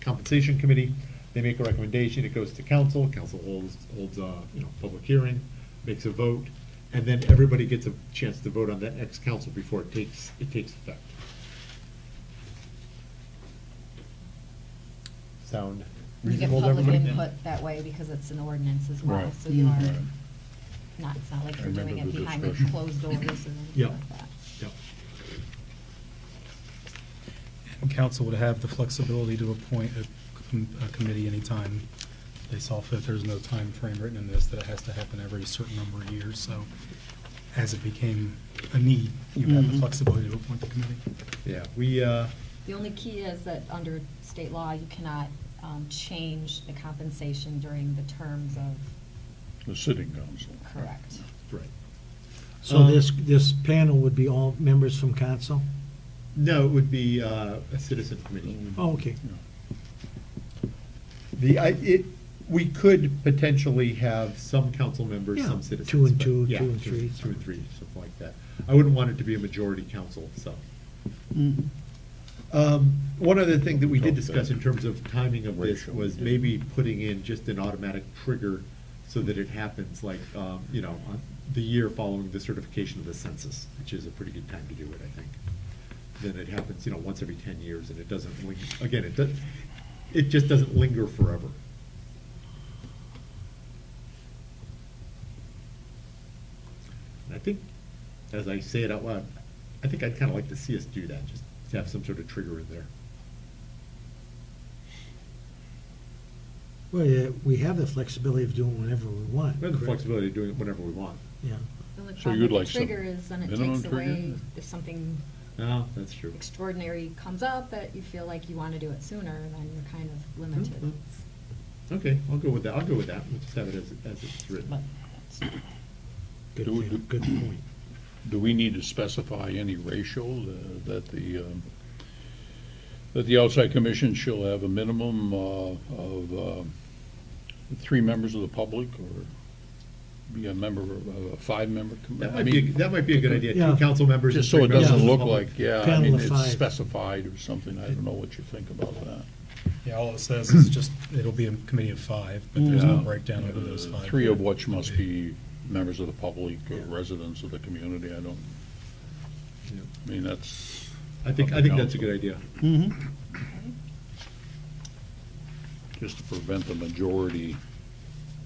compensation committee. They make a recommendation, it goes to council, council holds, holds, uh, you know, public hearing, makes a vote, and then everybody gets a chance to vote on that ex-council before it takes, it takes effect. Sound You get reasonable to public everybody? input that way because it's an ordinance as well, Right. so you are Right. not, it's not like I you're doing remember it the behind the discussion. closed doors or anything Yeah. like that. Yep. And council would have the flexibility to appoint a com- a committee anytime they saw fit. There's no time frame written in this that it has to happen every certain number of years. So as it became a need, you have Mm-hmm. the Mhm. flexibility to appoint the committee. Yeah, we, uh, The only key is that under state law, you cannot um, change the compensation during the terms of, The sitting council. correct. right. So this, this panel would be all members from council? No, it would be, uh, a citizen committee. Oh, okay. The, I, it, we could potentially have some council members, some Yeah, citizens. two and but- two, yeah, two and three. Two and three, something like that. I wouldn't want it to be a majority council, so. Um, One other thing that we did discuss in terms of timing of this Ratio. was maybe putting in just an automatic trigger so that it happens like, um, you know, on the year following the certification of the census, which is a pretty good time to do it, I think. Then it happens, you know, once every ten years and it doesn't ling, again, it does, it just doesn't linger forever. And I think, as I say it out loud, I think I'd kind of like to see us do that, just to have some sort of trigger in there. Well, yeah, we have the flexibility of doing whatever we want. We have the correct? flexibility of doing it whenever we want. Yeah. The only So problem you'd with the like some Trigger is then it minimum takes trigger? away, if something Ah, No, that's true. extraordinary comes up that you feel like you want to do it sooner, then you're kind of limited. Okay, I'll go with that, I'll go with that, we'll just have it as, as it's But written. Good, Do we- feel- good point. Do we need to specify any ratio uh, that the, um, that the outside commission shall have a minimum uh, of um, three members of the public or be a member of a five-member? commi- That I might mean, be, that might be a good idea, two Yeah. council members. and Just so three it members of doesn't the look public. like, yeah, I Panel mean, of it's five. specified or something. I don't know what you think about that. Yeah, all it says is just, it'll be a committee of five, but there's Mm-hmm. no breakdown of who those Uh, five. Three of are. which must be members of the public or Yeah. residents of the community. I don't, Yeah. I mean, that's. I think, I up to think that's a council. good idea. Just to prevent the majority,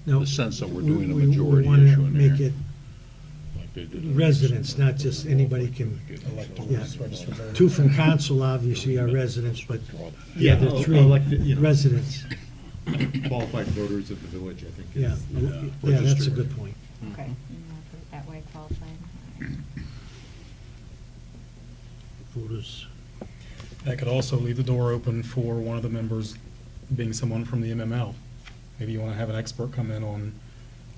No, the sense that we're we- doing a we- we majority wanna issue in Make here. it like they did. in- residents, not just anybody can, Electors, registered voters. two from council obviously are residents, but the Yeah, other oh, three elected, you know. residents. Qualified voters of the village, I think. Yeah, is- uh, yeah, that's a registered. good point. Okay. Mm-hmm. Mm, I'll put it That way qualifying. Voters. That could also leave the door open for one of the members being someone from the MML. Maybe you want to have an expert come in on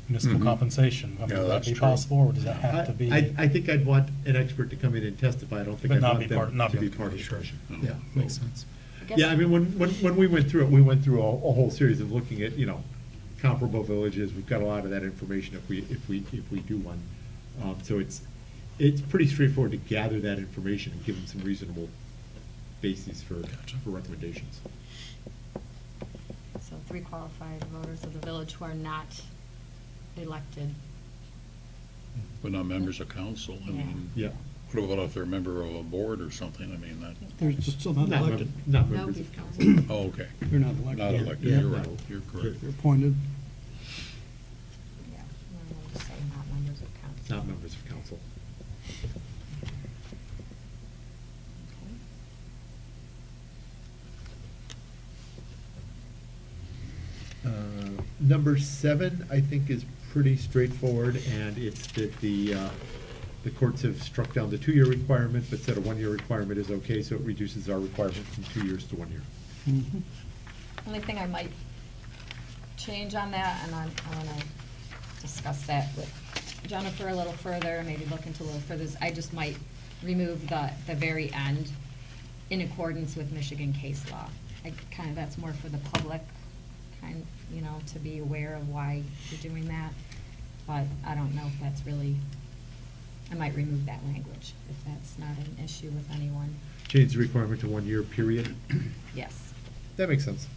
municipal Mhm. compensation. I mean, Yeah, Would that that's be true. possible, or does that I, have to be? I- I think I'd want an expert to come in and testify, I don't think But I'd not want be part- them not to be be on the part of the committee, discussion. Yeah. Makes sense. guess- Yeah, I mean, when, when, when we went through it, we went through a, a whole series of looking at, you know, comparable villages, we've got a lot of that information if we, if we, if we do one. Um, so it's, it's pretty straightforward to gather that information and give them some reasonable bases for, Gotcha. for recommendations. So three qualified voters of the village who are not elected. But not members of council. I mean, Yeah. what about if they're a member of a board or something? I mean, that, They're just still not Not, mem- elected. not No, members of before. council. oh, okay. They're not Not elected. elected, Yeah. you're right, you're correct. They're appointed. Yeah, and then we'll just say not members of council. Not members of council. Okay. Uh, Number seven, I think, is pretty straightforward, and it's that the, uh, the courts have struck down the two-year requirement, but said a one-year requirement is okay, so it reduces our requirement from two years to one year. Mhm. Only thing I might change on that, and I'm, I wanna discuss that with Jennifer a little further, maybe look into a little further, is I just might remove the, the very end in accordance with Michigan case law. I kind of, that's more for the public, kind, you know, to be aware of why you're doing that. But I don't know if that's really, I might remove that language, if that's not an issue with anyone. Change the requirement to one-year period. Yes. That makes sense.